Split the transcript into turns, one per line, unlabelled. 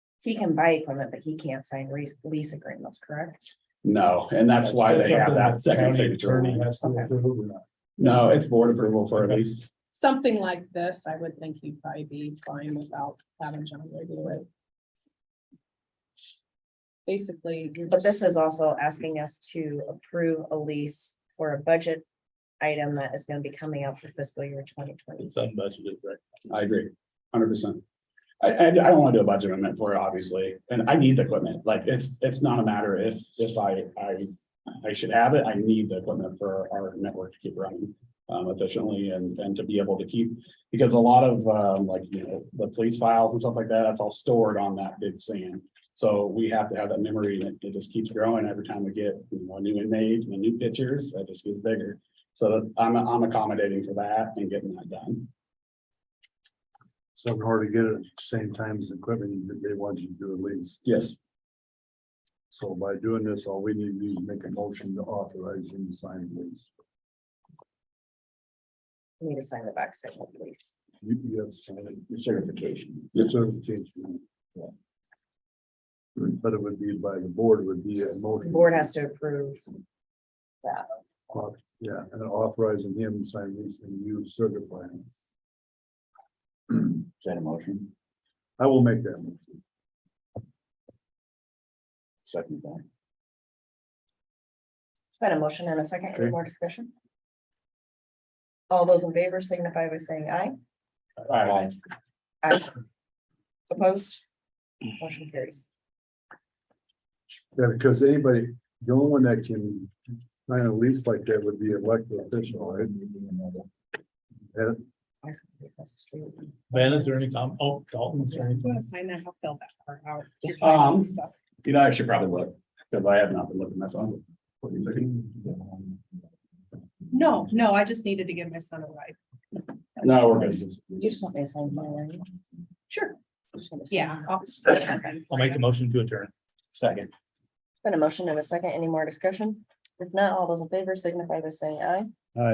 He can buy equipment, but he can't sign lease, lease agreements, correct?
No, and that's why they have that second
County
signature.
attorney has to
Okay.
approve or not.
No, it's board approval for a lease.
Something like this, I would think you'd probably be fine without having John review it. Basically, you're
But this
just,
is also asking us to approve a lease for a budget item that is gonna be coming up for fiscal year twenty twenty.
It's unbudgeted, right?
I agree, hundred percent. I, I, I don't want to do a budget amendment for it, obviously, and I need the equipment, like, it's, it's not a matter if, if I, I. I should have it, I need the equipment for our network to keep running, um, efficiently and, and to be able to keep. Because a lot of, um, like, you know, the police files and stuff like that, that's all stored on that big SAN. So we have to have that memory, and it- it just keeps growing every time we get, you know, a new inmate, and new pictures, that just gets bigger. So I'm, I'm accommodating for that and getting that done.
So hard to get it at the same time as the equipment that they want you to do a lease.
Yes,
So by doing this, all we need to do is make a motion to authorize him to sign the lease.
We Need to sign the back side of the lease.
You, you have to sign it.
the certification.
Your certification. yeah. But it would be by the board, would be a
The
motion.
board has to approve.
Au- Yeah, and authorizing him to sign lease and you certify it.
Is that a motion?
I will make that motion.
Second that.
Got a motion and a second, any
Okay.
more discussion? All those in favor signify by saying aye.
Aye.
Aye. Opposed? Motion carries.
Yeah, because anybody, the only one that can sign a lease like that would be elected official, right? And
I said, across the street.
Ben, is there any com, oh, Dalton, is there
if you
anything?
want to sign that, I'll fill that part out. Your
Um,
time stuff.
You know, I should probably look, because I have not been looking that long.
No, no, I just needed to give my son a ride.
No, we're good.
You just want me to sign my line?
Sure.
Yeah.
Yeah. I'll
I'll make a motion to adjourn.
Second.
Been a motion and a second, any more discussion? If not, all those in favor signify by saying aye.